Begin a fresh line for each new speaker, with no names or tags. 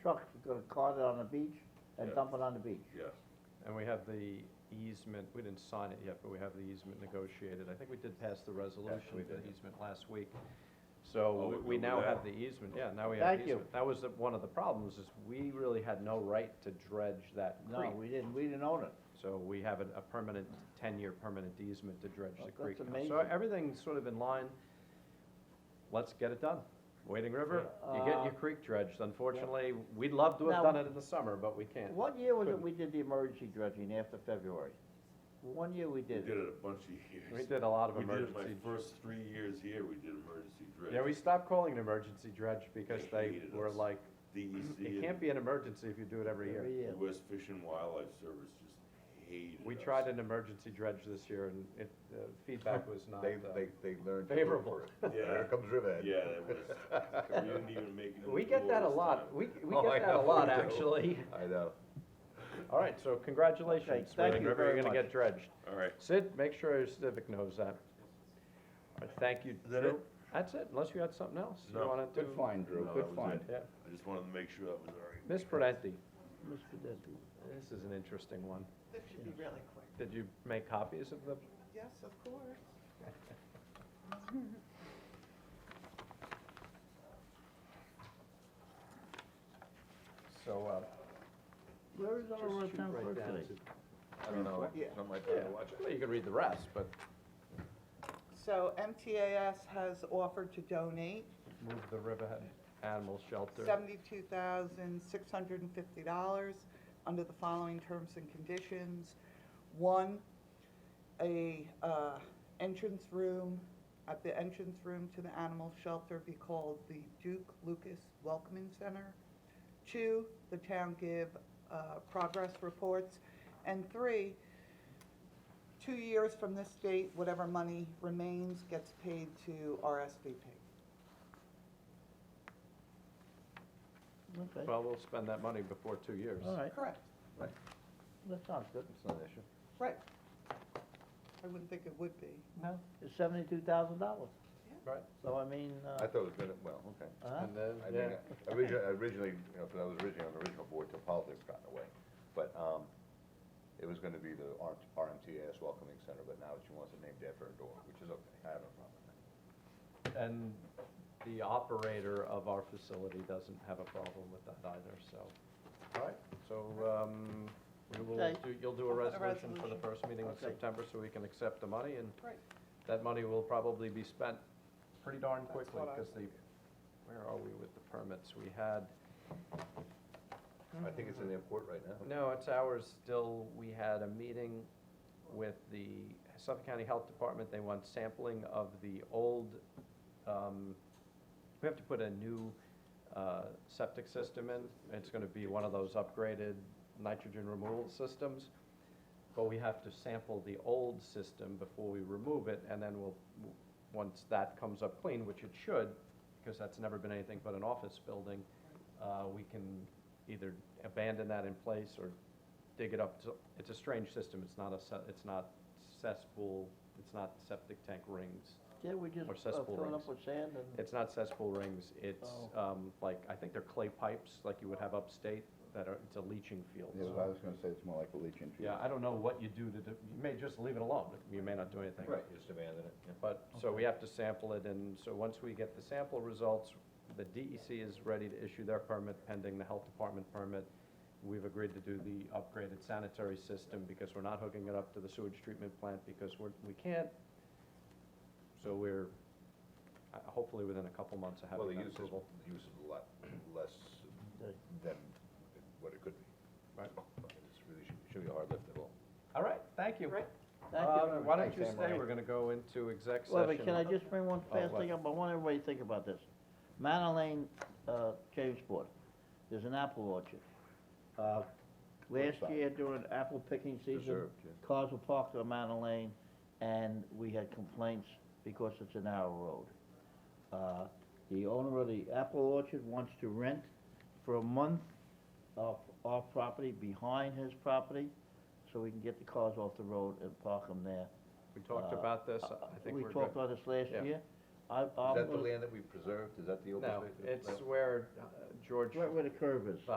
trucks are gonna cart it on the beach and
Yeah.
dump it on the beach.
yes.
And we have the easement, we didn't sign it yet, but we have the easement negotiated. I think we did pass the resolution for the
did.
easement last week.
Oh,
So
we
we
do
now have
that.
the easement, yeah, now we have the
Thank you.
easement. That was the- one of the problems, is we really had no right to dredge that
No,
creek.
we didn't, we didn't own it.
So we have a, a permanent, ten-year permanent easement to dredge the
Well,
creek.
that's
now. So
amazing.
everything's sort of in line. Let's get it done. Wading River, you get your
Uh,
creek dredged. Unfortunately, we'd love to
Now-
have done it in the summer, but we can't.
What year was it
Couldn't.
we did the emergency dredging after February? One year we
We
did
did
it.
it a bunch of years.
We did a lot of
We did it my
emergency.
first three years here, we did emergency dredge.
Yeah, we stopped calling it emergency dredge because
They
they
hated
were
us.
like,
DEC
it can't
E and
be an emergency if you do it every year.
Every year.
U.S. Fish and Wildlife Service just hated us.
We tried an emergency dredge this year and it, the feedback was not,
They,
uh,
they, they learned. to look
favorable.
for it.
Yeah,
There comes Riverhead.
yeah, that was, we didn't even make it.
we get that a lot. We, we
Oh, I
get that a
know,
lot,
we do.
actually.
I know.
All right, so congratulations,
Okay, thank
Wading
you
River, you're
very
gonna
much.
get dredged.
All right,
Sid, make sure your civic knows that. All right, Thank you.
Is that
Drew.
it?
That's it, unless you had something else you
No.
wanna do.
Good find, Drew,
No,
good
that was
find.
Yeah.
I just wanted to make sure that was all right.
Ms. Prudenti,
Mr. Desu.
this is an interesting one.
This should be really quick.
Did you make copies of the,
Yes, of course.
so, uh,
Where is
just
our uh,
shoot
town
right
clerk
down
today?
to-
I don't know,
Yeah.
something like
Yeah,
that, watch it.
well, you can read the rest, but
So MTAS has offered to donate
move the Riverhead Animal Shelter.
seventy-two thousand, six hundred and fifty dollars under the following terms and conditions. One, a, uh, entrance room, at the entrance room to the animal shelter be called the Duke Lucas Welcoming Center. Two, the town give, uh, progress reports. And three, two years from this date, whatever money remains gets paid to RSVP.
Okay,
Well, we'll spend that money before two years.
all right,
Correct.
that sounds good.
It's not an issue.
Right. I wouldn't think it would be.
No, it's seventy-two thousand dollars,
Right,
so I mean,
I
uh,
thought it was gonna, well, okay.
uh-huh.
and then,
I
yeah,
mean, originally, originally, you know, 'cause I was originally on the original board till politics got in the way. But, um, it was gonna be the R- RMTS Welcoming Center, but now she wants it named after her door, which is okay, I have no problem with that.
and the operator of our facility doesn't have a problem with that either, so. All right, so, um, we will,
Okay.
do- you'll do a
I'll put a
resolution for the
resolution.
first meeting in
Okay.
September, so we can accept the money, and
Right.
that money will probably be spent pretty darn
That's
quickly,
what I
because the, where are we with the permits? We had,
I think it's in the airport right now.
No, it's ours still. We had a meeting with the Suffolk County Health Department. They want sampling of the old, um, we have to put a new, uh, septic system in. It's gonna be one of those upgraded nitrogen removal systems. But we have to sample the old system before we remove it, and then we'll, once that comes up clean, which it should, because that's never been anything but an office building, uh, we can either abandon that in place or dig it up. So It's a strange system, it's not a, se- it's not cesspool, it's not septic tank rings,
Yeah, we just
Or
uh,
cesspool
fill it
rings.
up with sand and,
it's not cesspool rings, it's,
Oh.
um, like, I think they're clay pipes, like you would have upstate, that are, it's a leaching field.
I was gonna say, it's more like a leaching
Yeah, I don't know what you do to, do- you may just leave it alone, you may not do anything.
Right, you just abandon it, yeah.
But, so we have to sample it, and so once we get the sample results, the DEC is ready to issue their permit pending the health department permit. We've agreed to do the upgraded sanitary system because we're not hooking it up to the sewage treatment plant because we're, we can't. So we're, uh, hopefully within a couple months of having
Well, the
that
use is,
approval.
the use is a lot less than what it could be.
Right.
It's really, should- should be a hard lift at all.
All right, thank you.
Right.
thank
Uh,
you.
Why don't you
Thanks,
stay,
Anne-Marie.
we're gonna go into exec
Wait, wait,
session.
can I just bring one
Oh,
fast
what?
thing up, I want everybody to think about this. Manor Lane, uh, Jamesport, there's an apple orchard. Uh, Last
Roadside.
year during apple picking season,
Preserved, yeah.
cars were parked on Manor Lane, and we had complaints because it's a narrow road. Uh, The owner of the apple orchard wants to rent for a month of our property behind his property, so we can get the cars off the road and park them there.
We talked
Uh,
about this,
Uh,
I think
We
we're good.
talked about this last
Yeah.
year. I, I'm,
Is that the
gonna-
land that we preserved? Is that the open
No,
space?
it's where uh, George
right where the curve is.